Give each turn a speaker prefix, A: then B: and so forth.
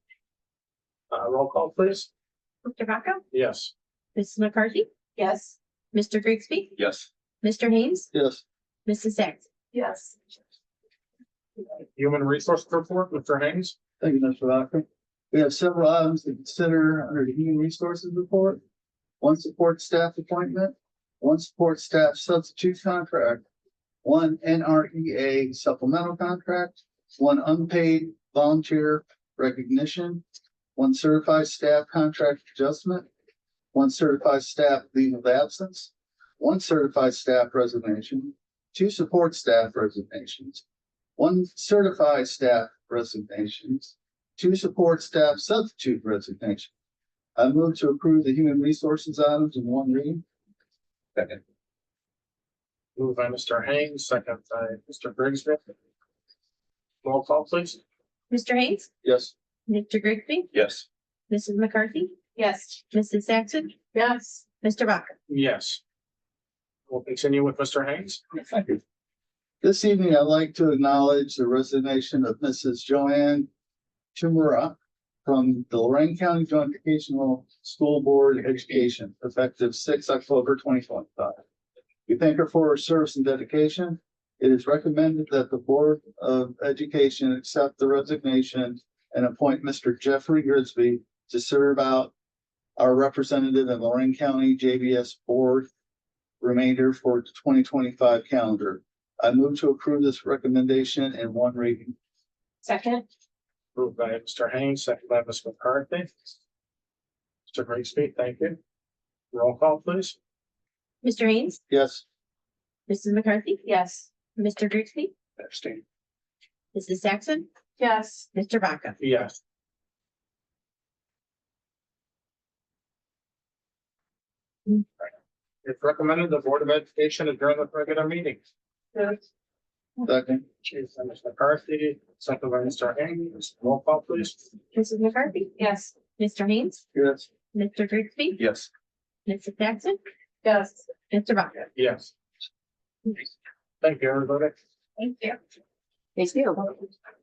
A: Uh, roll call, please.
B: Mr. Vaca,
A: Yes.
B: Mrs. McCarthy,
C: Yes.
B: Mr. Grigsby,
D: Yes.
B: Mr. Haynes,
D: Yes.
B: Mrs. Sacks.
C: Yes.
A: Human Resource Report, Mr. Haynes.
D: Thank you, Mr. Vaca. We have several items to consider under the Human Resources Report. One support staff appointment, one support staff substitute contract, one NREA supplemental contract, one unpaid volunteer recognition, one certified staff contract adjustment, one certified staff leave of absence, one certified staff resignation, two support staff resignations, one certified staff resignations, two support staff substitute resignations. I move to approve the human resources items in one reading. Second.
A: Moved by Mr. Haynes, second by Mr. Grigsby. Roll call, please.
B: Mr. Haynes,
D: Yes.
B: Mr. Grigsby,
D: Yes.
B: Mrs. McCarthy,
C: Yes.
B: Mrs. Saxon,
C: Yes.
B: Mr. Vaca.
A: Yes. We'll continue with Mr. Haynes.
D: Thank you. This evening, I'd like to acknowledge the resignation of Mrs. Joanne Chimura from the Lorraine County Joint Educational School Board of Education, effective six October twenty twenty-five. We thank her for her service and dedication. It is recommended that the Board of Education accept the resignation and appoint Mr. Jeffrey Grigsby to serve out our representative in Lorraine County JBS Board remainder for the twenty twenty-five calendar. I move to approve this recommendation in one reading.
C: Second.
A: Moved by Mr. Haynes, second by Ms. McCarthy. Mr. Grigsby, thank you. Roll call, please.
B: Mr. Haynes,
D: Yes.
B: Mrs. McCarthy,
C: Yes.
B: Mr. Grigsby,
A: Abstain.
B: Mrs. Saxon,
C: Yes.
B: Mr. Vaca.
A: Yes. It's recommended the Board of Education adjourn the regular meeting.
D: Second.
A: Chief by Ms. McCarthy, second by Mr. Haynes. Roll call, please.
B: Mrs. McCarthy,
C: Yes.
B: Mr. Haynes,
D: Yes.
B: Mr. Grigsby,
D: Yes.
B: Mrs. Saxon,
C: Yes.
B: Mr. Vaca.
A: Yes. Thank you, everybody.
B: Thank you.
C: Thank you.